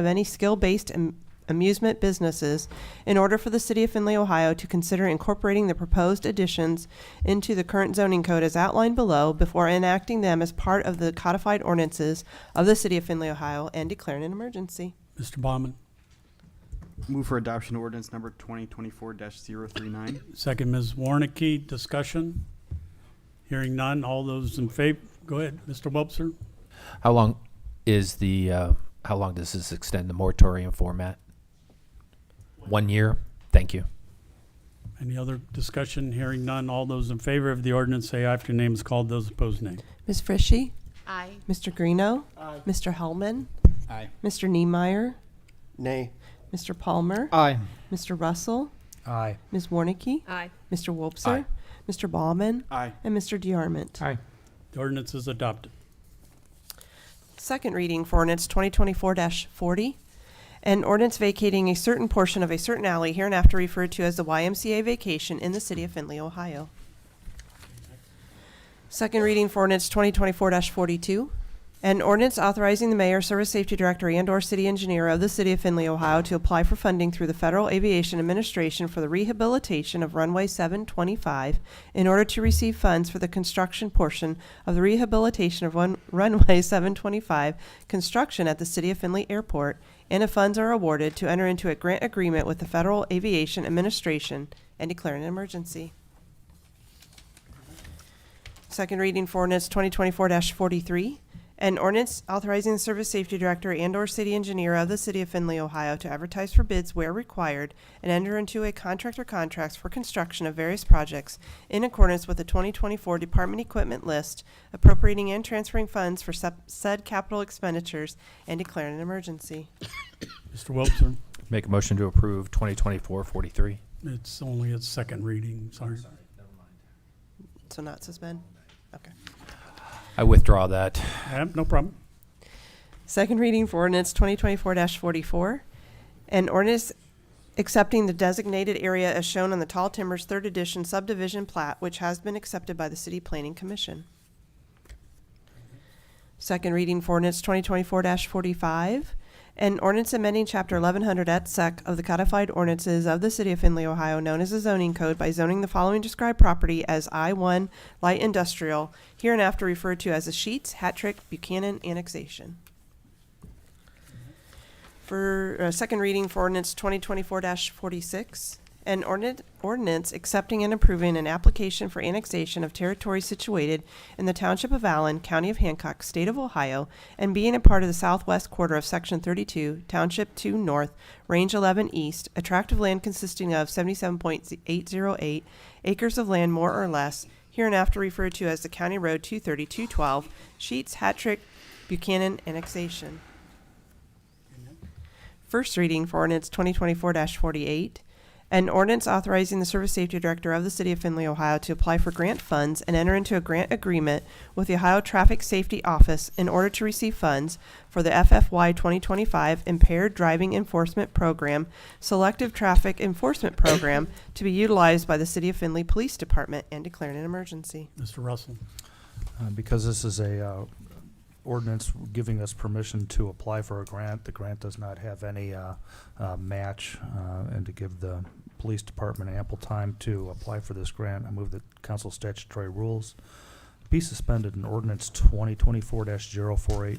of any skill-based am- amusement businesses in order for the City of Findlay, Ohio to consider incorporating the proposed additions into the current zoning code as outlined below before enacting them as part of the codified ordinances of the City of Findlay, Ohio, and declaring an emergency. Mr. Baumann, Move for adoption ordinance number twenty twenty-four 39 second Ms. Warnicki, discussion? Hearing none, all those in favor, go ahead, Mr. Wobser. How long is the, uh, how long does this extend the moratorium format? One year? Thank you. Any other discussion? Hearing none, all those in favor of the ordinance say aye if your name is called, those opposed nay. Ms. Frishy? Aye. Mr. Greeno? Aye. Mr. Hellman? Aye. Mr. Niemeyer? Nay. Mr. Palmer? Aye. Mr. Russell? Aye. Ms. Warnicki? Aye. Mr. Wobser? Aye. Mr. Baumann? Aye. And Mr. DeArmond? The ordinance is adopted. Second reading for ordinance 2024-40, an ordinance vacating a certain portion of a certain alley hereinafter referred to as the YMCA vacation in the city of Findlay, Ohio. Second reading for ordinance 2024-42, an ordinance authorizing the mayor, service safety director, and/or city engineer of the city of Findlay, Ohio to apply for funding through the Federal Aviation Administration for the rehabilitation of runway 725 in order to receive funds for the construction portion of the rehabilitation of run- runway 725 construction at the city of Findlay Airport, and if funds are awarded, to enter into a grant agreement with the Federal Aviation Administration and declare an emergency. Second reading for ordinance twenty twenty-four forty-three. An ordinance authorizing the service safety director and/or city engineer of the city of Findlay, Ohio to advertise for bids where required and enter into a contract or contracts for construction of various projects in accordance with the twenty twenty-four department equipment list, appropriating and transferring funds for sup- said capital expenditures and declaring an emergency. Mr. Wobser, Make a motion to approve 2024-43. it's only its second reading, sorry. So not suspend. Okay. I withdraw that. Yeah, Eh, No problem. Second reading for ordinance twenty twenty-four forty-four. An ordinance accepting the designated area as shown on the Tall Timbers Third Edition subdivision plat, which has been accepted by the City Planning Commission. Second reading for ordinance twenty twenty-four forty-five. An ordinance amending chapter eleven hundred et sec of the codified ordinances of the City of Findlay, Ohio, known as the zoning code by zoning the following described property as I one light industrial, hereinafter referred to as the Sheets, Hattrick, Buchanan annexation. For uh, second reading for ordinance twenty twenty-four forty-six, an ordinance, ordinance accepting and approving an application for annexation of territory situated in the township of Allen, county of Hancock, state of Ohio, and being a part of the southwest quarter of section thirty-two, township two north, range eleven east, a tract of land consisting of seventy-seven point eight zero eight acres of land more or less, hereinafter referred to as the county road two thirty-two twelve, Sheets, Hattrick, Buchanan annexation. First reading for ordinance twenty twenty-four forty-eight. An ordinance authorizing the service safety director of the city of Findlay, Ohio to apply for grant funds and enter into a grant agreement with the Ohio Traffic Safety Office in order to receive funds for the FFY twenty twenty-five Impaired Driving Enforcement Program, Selective Traffic Enforcement Program to be utilized by the city of Findlay Police Department and declaring an emergency. Mr. Russell, Uh, Because this is a uh, ordinance giving us permission to apply for a grant, the grant does not have any uh, uh, match, uh, and to give the police department ample time to apply for this grant, I move that council statutory rules be suspended and ordinance twenty twenty-four 48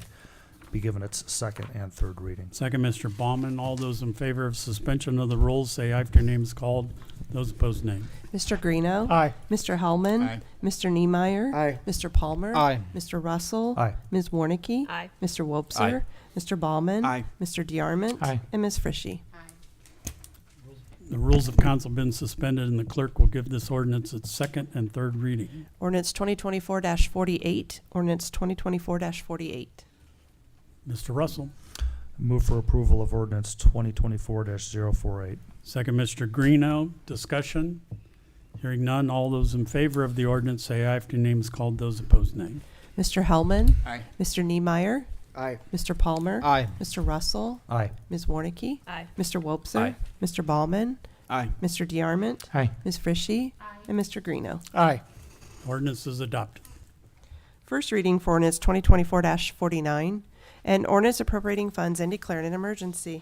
be given its second and third reading. second Mr. Baumann, all those in favor of suspension of the rules say aye if your name is called, those opposed nay. Mr. Greeno. Aye. Mr. Hellman. Aye. Mr. Niemeyer. Aye. Mr. Palmer. Aye. Mr. Russell. Aye. Ms. Warnicki. Aye. Mr. Wobser. Mr. Ballman. Aye. Mr. DeArmond. Aye. And Ms. Frishy. The rules of council have been suspended, and the clerk will give this ordinance its second and third reading. Ordinance 2024-48, ordinance 2024-48. Mr. Russell, Move for approval of ordinance twenty twenty-four 48 second Mr. Greeno, discussion. Hearing none, all those in favor of the ordinance say aye if your name is called, those opposed nay. Mr. Hellman. Aye. Mr. Niemeyer. Aye. Mr. Palmer. Aye. Mr. Russell. Aye. Ms. Warnicki. Aye. Mr. Wobser. Aye. Mr. Ballman. Aye. Mr. DeArmond. Aye. Ms. Frishy. And Mr. Greeno. Aye. Ordinance is adopted. First reading for ordinance twenty twenty-four forty-nine. and ordinance appropriating funds and declaring an emergency.